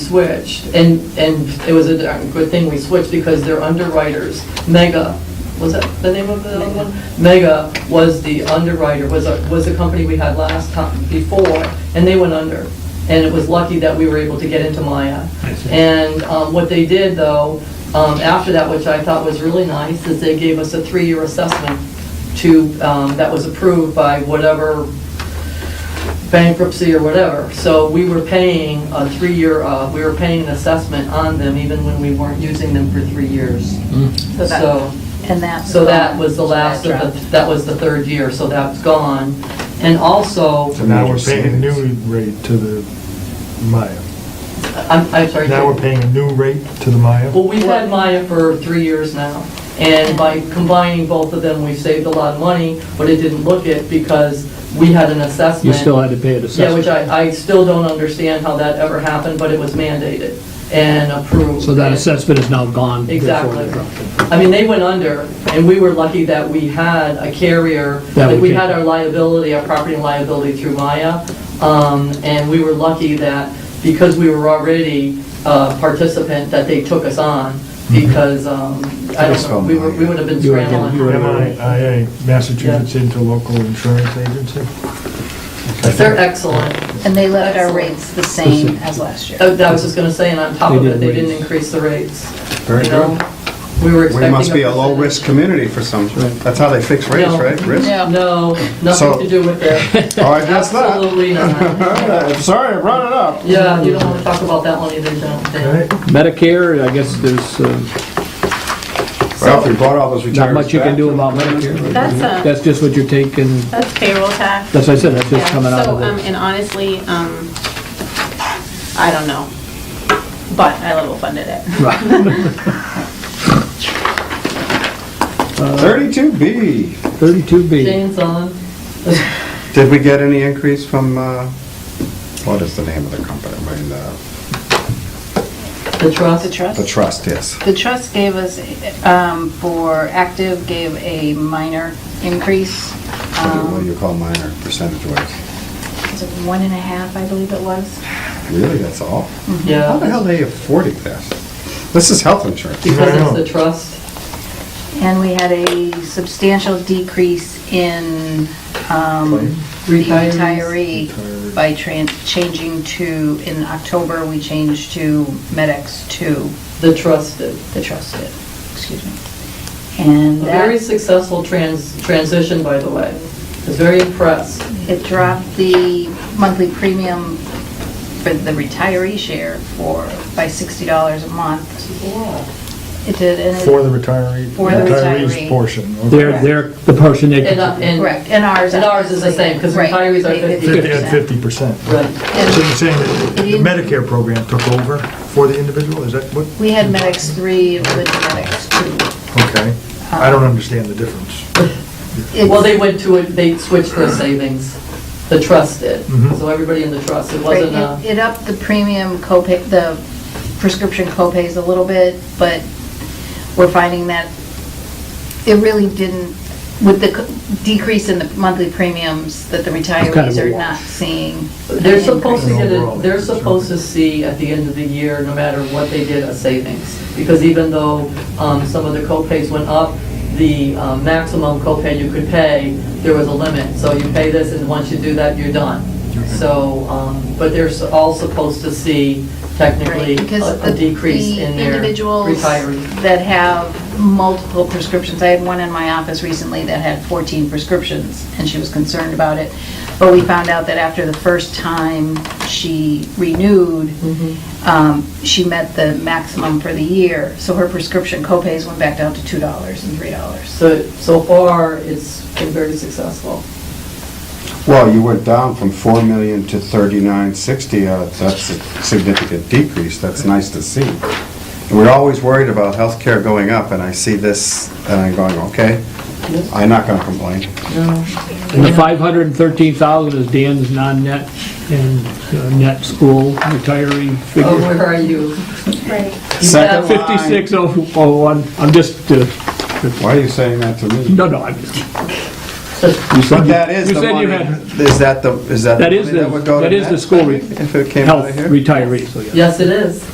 switched, and, and it was a darn good thing we switched, because their underwriters, Mega, was that the name of the other one? Mega was the underwriter, was a, was the company we had last time, before, and they went under. And it was lucky that we were able to get into Maya. I see. And um, what they did, though, um, after that, which I thought was really nice, is they gave us a three-year assessment to, um, that was approved by whatever bankruptcy or whatever. So we were paying a three-year, uh, we were paying an assessment on them even when we weren't using them for three years. So that- So, And that. so that was the last of the, that was the third year, so that's gone. And also, So now we're paying a new rate to the Maya. I'm, I'm sorry. Now we're paying a new rate to the Maya? Oh. Well, we've had Maya for three years now, and by combining both of them, we've saved a lot of money, but it didn't look it because we had an You assessment. still had to pay an Yeah, which assessment. I, I still don't understand how that ever happened, but it was mandated and approved. So that assessment is now gone. therefore Exactly. they dropped it. I mean, they went under, and we were lucky that we had a carrier, That like, we we can- had our liability, our property and liability through Maya, um, and we were lucky that, because we were already a participant, that they took us on, because, um, I Took us don't know, from we were, Maya. we would have been Mm-hmm. You were- you scrambling. were- MIA, Massachusetts Interlocal Insurance Agency? They're excellent. And they left our rates the same as last year. Uh, I was just gonna say, and on top They of it, did they didn't raise. increase the rates. Very you know? good. We were We expecting. must be a low-risk percentage. community for some, Right. that's how they fix rates, No. right? Risk? Yeah. No, So- nothing to do with it. Oh, I guess not. Absolutely not. Sorry, I brought it up. Yeah, you don't want to talk about that one either, John. Right? Medicare, I guess there's uh, Well, if we brought all those retirees not much you can back, do about Medicare. That's uh, uh, a- That's just what you're taking, That's payroll tax. that's what I said, that's Yeah, just coming out so, of um, the, And honestly, um, I don't know, but I level funded it. Thirty-two B. um, 32B. Jane's on. Did we get any increase from, uh, what is the name of the company? I mean, uh, The trust. The The trust? trust, yes. The trust gave us, um, for active, gave a minor increase. What do Um, you call minor percentage-wise? was it One and a half, I believe it was. Really, that's all? How the Yeah, hell they affording this? This is health insurance. because it's the trust. And we had a substantial decrease in um, the Retirees. retiree by tran- changing to, in October, we changed to MedX to The trusted. the trusted, excuse me. And A very that, successful trans, transition, by the way. I was very impressed. it dropped the monthly premium for the retiree share for, by $60 a month. It did, and it... For the retiree, For the retiree's retiree. portion. okay. They're, they're the portion they, And, uh, and. Correct, and ours. And ours is the same, 'cause Right, retirees are we made it 50 At fifty percent. So Right. you're saying that the Medicare program took over for the individual, is that what? We had Medix 3 with Medix Okay, I don't understand the difference. 2. Well, they went to, it. they switched their savings. The trust did. Mm-hmm. Mhm. So everybody in the trust, it Right, wasn't It a, it upped the premium copay, the prescription copays a little bit, but we're finding that it really didn't, with the co- decrease in the monthly premiums that the kind of retirees a are wash. not seeing. they're supposed to get, a. Overall, they're it's a- supposed to see at the end of the year, no matter what they did, a savings. Because even though um, some of the co-pays went up, the um, maximum copay you could pay, there was a limit. So you pay this, and once you do that, you're done. So, um, but they're s- all supposed to see technically Right, because a a the- decrease the in their individuals retiree. that have multiple prescriptions, I had one in my office recently that had 14 prescriptions, and she was concerned about it, but we found out that after the first time she renewed, Mm-hmm. um, she met the maximum for the year, so her prescription copays went back down to $2 and $3. So, so far, it's been very successful. Well, you went down from four million to thirty-nine sixty, uh, that's a significant decrease, that's nice to see. And we're always worried about healthcare going up, and I see this, and I'm going, okay, I'm not gonna complain. and the 513,000 is Dan's non-net and uh, net school retiree Oh, figure. where are you? Second line. 5601, I'm just, uh, Why are you saying that to me? no, no, I'm just, You said But you- that is you the said you money, had- is that the, is that the That money is the, that would go to that is the Matt school re- If it came out health of here? retirees, so yeah. Yes, it is.